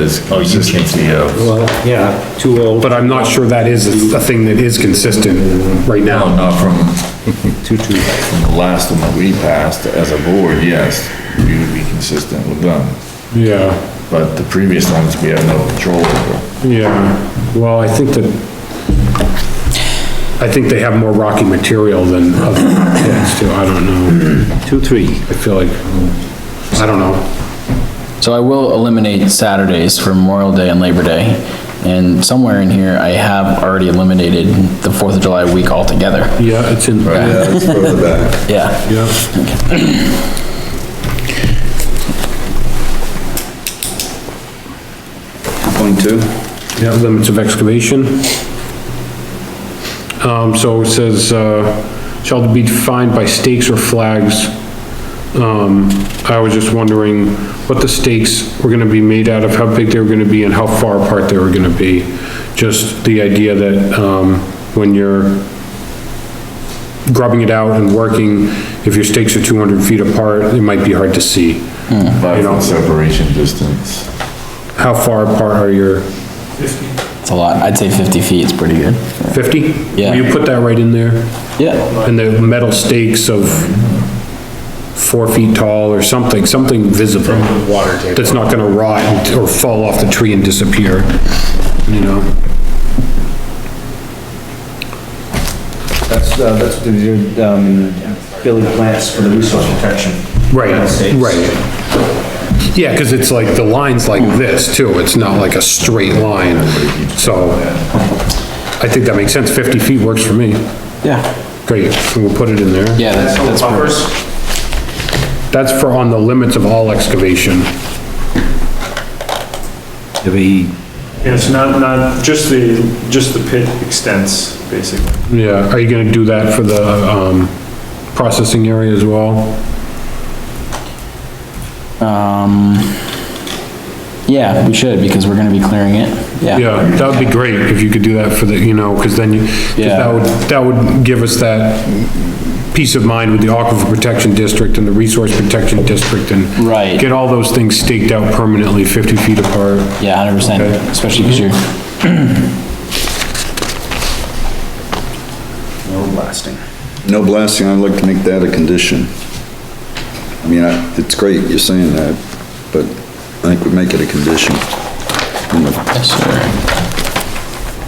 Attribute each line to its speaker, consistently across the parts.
Speaker 1: is consistency of,
Speaker 2: Well, yeah, too old,
Speaker 3: But I'm not sure that is a thing that is consistent right
Speaker 1: no,
Speaker 3: now.
Speaker 1: not from
Speaker 2: too, too.
Speaker 1: from the last one that we passed as a board, yes, we would be consistent with them.
Speaker 3: Yeah,
Speaker 1: But the previous ones, we have no control over.
Speaker 3: yeah. Well, I think that, I think they have more rocky material than other ones too. I don't know. Two, three. I feel like, I don't know.
Speaker 4: So I will eliminate Saturdays for Memorial Day and Labor Day. And somewhere in here, I have already eliminated the Fourth of July week altogether.
Speaker 3: Yeah, it's in, yeah.
Speaker 5: Yeah, it's further back.
Speaker 4: Yeah,
Speaker 5: Point two?
Speaker 3: Yeah, limits of excavation. Um, so it says, uh, shall be defined by stakes or flags. Um, I was just wondering what the stakes were gonna be made out of, how big they were gonna be, and how far apart they were gonna be. Just the idea that, um, when you're grubbing it out and working, if your stakes are two hundred feet apart, it might be hard to see.
Speaker 1: Five
Speaker 3: You know.
Speaker 1: foot separation distance.
Speaker 3: How far apart are your
Speaker 4: it's a lot. I'd say fifty feet is pretty good.
Speaker 3: fifty?
Speaker 4: Yeah.
Speaker 3: You put that right in there?
Speaker 4: Yeah,
Speaker 3: and the metal stakes of four feet tall or something, something visible. Water table. That's not gonna rot and- or fall off the tree and disappear, you know?
Speaker 6: That's, uh, that's what they do, um, building plants for the resource protection.
Speaker 3: Right,
Speaker 6: United States.
Speaker 3: right. Yeah, cause it's like, the line's like this too, it's not like a straight line, so I think that makes sense, fifty feet works for me.
Speaker 4: yeah,
Speaker 3: Great, we'll put it in there.
Speaker 4: yeah, that's, that's perfect.
Speaker 3: That's for on the limits of all excavation.
Speaker 7: And it's not, not, just the, just the pit extents, basically.
Speaker 3: Yeah, are you gonna do that for the, um, processing area as well?
Speaker 4: Um, yeah, we should because we're gonna be clearing it. Yeah,
Speaker 3: Yeah, that would be great if you could do that for the, you know, because then you, 'cause
Speaker 4: Yeah.
Speaker 3: that would, that would give us that peace of mind with the Aquifer Protection District and the Resource Protection District and
Speaker 4: Right.
Speaker 3: get all those things staked out permanently, fifty feet apart.
Speaker 4: yeah, hundred percent,
Speaker 3: Okay.
Speaker 4: especially because you're,
Speaker 6: No blasting.
Speaker 5: No blasting, I'd like to make that a condition. I mean, I- it's great you're saying that, but I think we make it a condition. You know,
Speaker 4: yes, sir.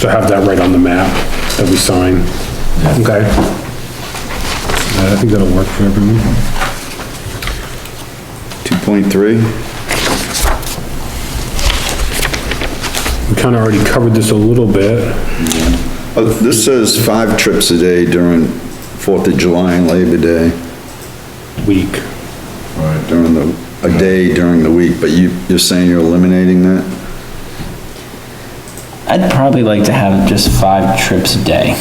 Speaker 3: So have that right on the map that we sign. Okay. Uh, I think that'll work for everyone.
Speaker 5: 2.3,
Speaker 3: We kinda already covered this a little bit.
Speaker 5: Uh, this says five trips a day during Fourth of July and Labor Day,
Speaker 3: Week.
Speaker 5: during the, a day during the week, but you, you're saying you're eliminating that?
Speaker 4: I'd probably like to have just five trips a day,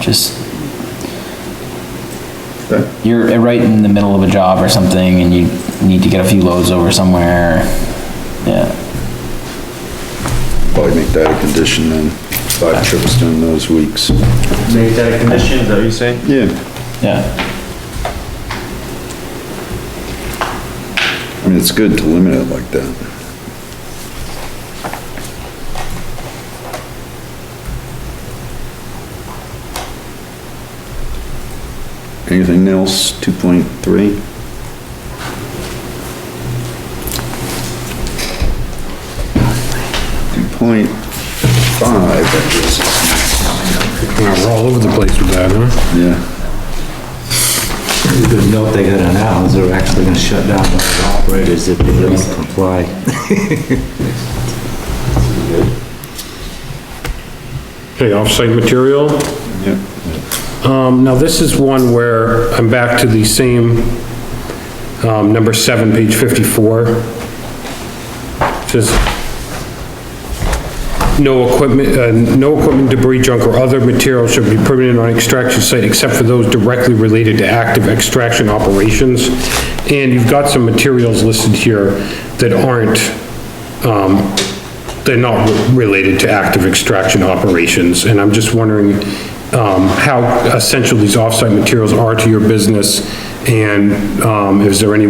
Speaker 4: just.
Speaker 5: Okay.
Speaker 4: You're uh, right in the middle of a job or something and you need to get a few loads over somewhere. Yeah,
Speaker 5: Probably make that a condition then, five trips during those weeks.
Speaker 6: Make that a condition, is that what you're saying?
Speaker 5: Yeah,
Speaker 4: yeah,
Speaker 5: I mean, it's good to limit it like that. Anything else, 2.3? Two point five, that
Speaker 3: Wow, we're all over the place with that, huh?
Speaker 5: is, yeah,
Speaker 6: It's a Good note they got announced, they're actually gonna shut down the operators if they don't comply.
Speaker 3: Okay, off-site material.
Speaker 5: yeah,
Speaker 3: Um, now this is one where I'm back to the same, um, number seven, page fifty-four. Says, no equipment, uh, no equipment debris, junk, or other material should be permitted on extraction site except for those directly related to active extraction operations. And you've got some materials listed here that aren't, um, they're not related to active extraction operations. And I'm just wondering, um, how essential these off-site materials are to your business? And, um, is there any